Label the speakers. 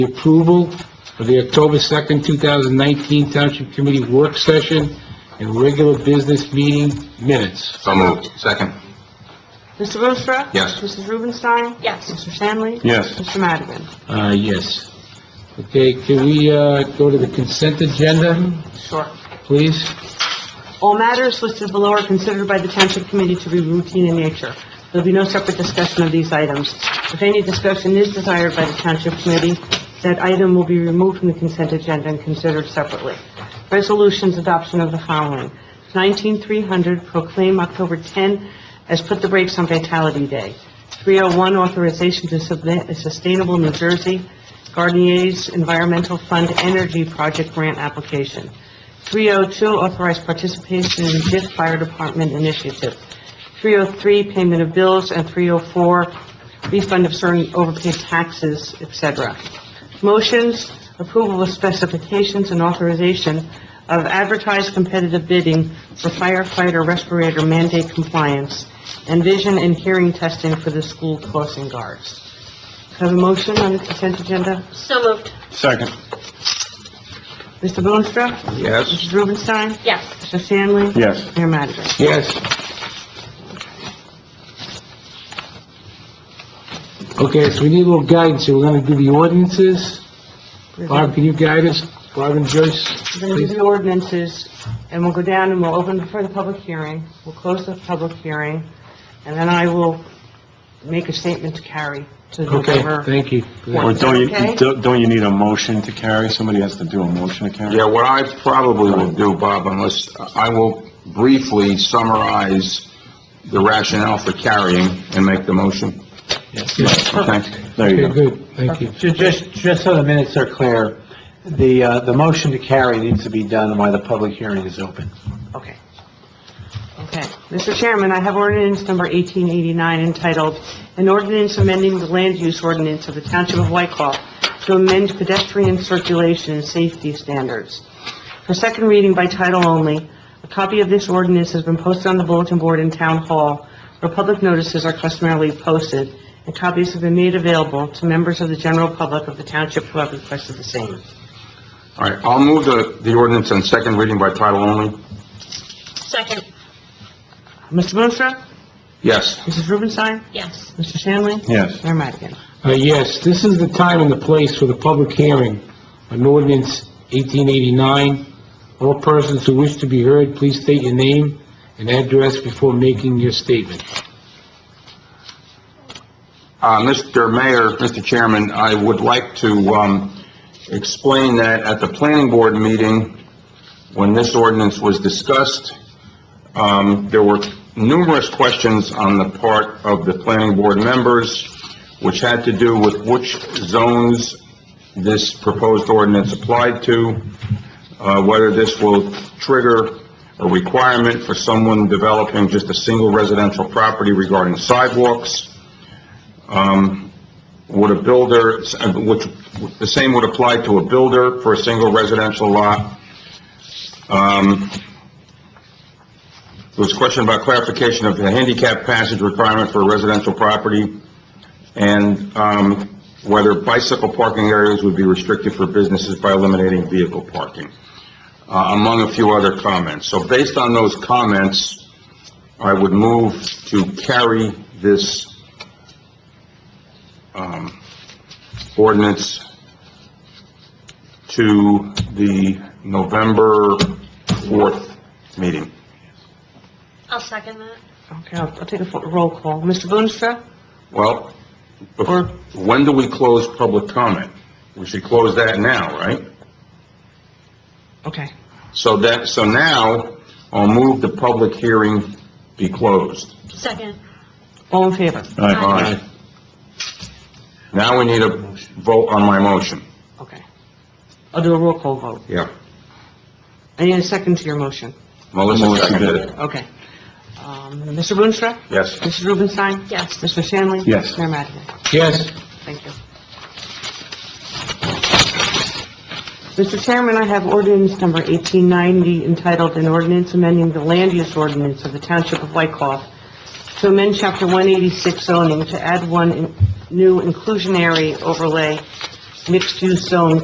Speaker 1: the approval of the October 2nd, 2019 Township Committee Work Session and Regular Business Meeting Minutes.
Speaker 2: So moved. Second.
Speaker 3: Mr. Bostrer?
Speaker 2: Yes.
Speaker 3: Mrs. Rubenstein?
Speaker 4: Yes.
Speaker 3: Mr. Stanley?
Speaker 2: Yes.
Speaker 3: Mr. Madigan?
Speaker 1: Uh, yes. Okay, can we, uh, go to the consent agenda,
Speaker 3: Sure.
Speaker 1: please?
Speaker 3: All matters listed below are considered by the Township Committee to be routine in nature. There'll be no separate discussion of these items. If any discussion is desired by the Township Committee, that item will be removed from the consent agenda and considered separately. Resolutions, adoption of the following. 19300, proclaim October 10 as Put the Brakes on Vitality Day. 301, authorization to submit a Sustainable New Jersey Gardenier's Environmental Fund Energy Project Grant Application. 302, authorize oh participation in DIF Fire Department Initiative. 303, payment of bills, and 304, refund of certain overpaid taxes, et cetera. Motions, approval of specifications and authorization of advertised competitive bidding for firefighter respirator mandate compliance and vision and hearing testing for the school crossing guards. Have a motion on the consent agenda?
Speaker 4: So moved.
Speaker 2: Second.
Speaker 3: Mr. Boonstra?
Speaker 2: Yes.
Speaker 3: Mrs. Rubenstein?
Speaker 4: Yes.
Speaker 3: Mr. Stanley?
Speaker 2: Yes.
Speaker 3: Mayor Madigan?
Speaker 1: Yes. Okay, so we need a little guidance, here. we're gonna do the ordinances.
Speaker 3: We're
Speaker 1: Barb, can you guide us? Barb and Joyce,
Speaker 3: going to do
Speaker 1: please?
Speaker 3: the ordinances, and we'll go down and we'll open for the public hearing, we'll close the public hearing, and then I will make a statement to carry to
Speaker 1: Okay,
Speaker 3: November.
Speaker 1: thank you.
Speaker 5: Or don't
Speaker 3: Okay.
Speaker 5: you, don't don't you need a motion to carry? Somebody has to do a motion to carry?
Speaker 2: Yeah, what I probably will do, Bob, unless, I will briefly summarize the rationale for carrying and make the motion.
Speaker 1: Yes.
Speaker 2: Okay?
Speaker 5: There you
Speaker 1: Okay,
Speaker 5: go.
Speaker 1: good, thank you.
Speaker 6: Ju- Just, just so the minutes are clear, the, uh, the motion to carry needs to be done while the public hearing is open.
Speaker 3: Okay. Okay. Mr. Chairman, I have ordinance number 1889 entitled, "An Ordinance Amending the Land Use Ordinance of the Township of Whitehall to Amend Pedestrian Circulation and Safety Standards." For second reading by title only, a copy of this ordinance has been posted on the bulletin board in Town Hall, where public notices are customarily posted, and copies have been made available to members of the general public of the township who have requested the same.
Speaker 2: All right, I'll move the, the ordinance on second reading by title only.
Speaker 4: Second.
Speaker 3: Mr. Boonstra?
Speaker 2: Yes.
Speaker 3: Mrs. Rubenstein?
Speaker 4: Yes.
Speaker 3: Mr. Stanley?
Speaker 5: Yes.
Speaker 3: Mayor Madigan?
Speaker 1: Uh, yes, this is the time and the place for the public hearing on ordinance 1889. All persons who wish to be heard, please state your name and address before making your statement.
Speaker 2: Uh, Mr. Mayor, Mr. Chairman, I would like to, um, explain that at the planning board meeting, when this ordinance was discussed, um, there were numerous questions on the part of the planning board members, which had to do with which zones this proposed ordinance applied to, uh, whether this will trigger a requirement for someone developing just a single residential property regarding sidewalks, um, would a builder, which, the same would apply to a builder for a single residential lot. Um, There was a question about clarification of the handicap passage requirement for a residential property, and um, whether bicycle parking areas would be restricted for businesses by eliminating vehicle parking, uh, among a few other comments. So based on those comments, I would move to carry this um, ordinance to the November 4th meeting.
Speaker 4: I'll second that.
Speaker 3: Okay, I'll I'll take a fo- roll call. Mr. Boonstra?
Speaker 2: Well, bef-
Speaker 3: Or-
Speaker 2: when do we close public comment? We should close that now, right?
Speaker 3: Okay.
Speaker 2: So that, so now, I'll move the public hearing be closed.
Speaker 4: Second.
Speaker 3: All in favor?
Speaker 5: All right.
Speaker 2: All right. Now we need a vote on my motion.
Speaker 3: Okay. I'll do a roll call vote.
Speaker 2: Yeah.
Speaker 3: I need a second to your motion.
Speaker 2: Melissa
Speaker 5: Melissa
Speaker 2: seconded
Speaker 5: did
Speaker 2: it.
Speaker 3: Okay. Um, Mr. Boonstra?
Speaker 2: Yes.
Speaker 3: Mrs. Rubenstein?
Speaker 4: Yes.
Speaker 3: Mr. Stanley?
Speaker 5: Yes.
Speaker 3: Mayor Madigan?
Speaker 1: Yes?
Speaker 3: Thank you. Mr. Chairman, I have ordinance number 1890 entitled An Ordinance Amending the Land Use Ordinance of the Township of Wykoff to amend Chapter 186 zoning to add one in- new inclusionary overlay mixed-use zone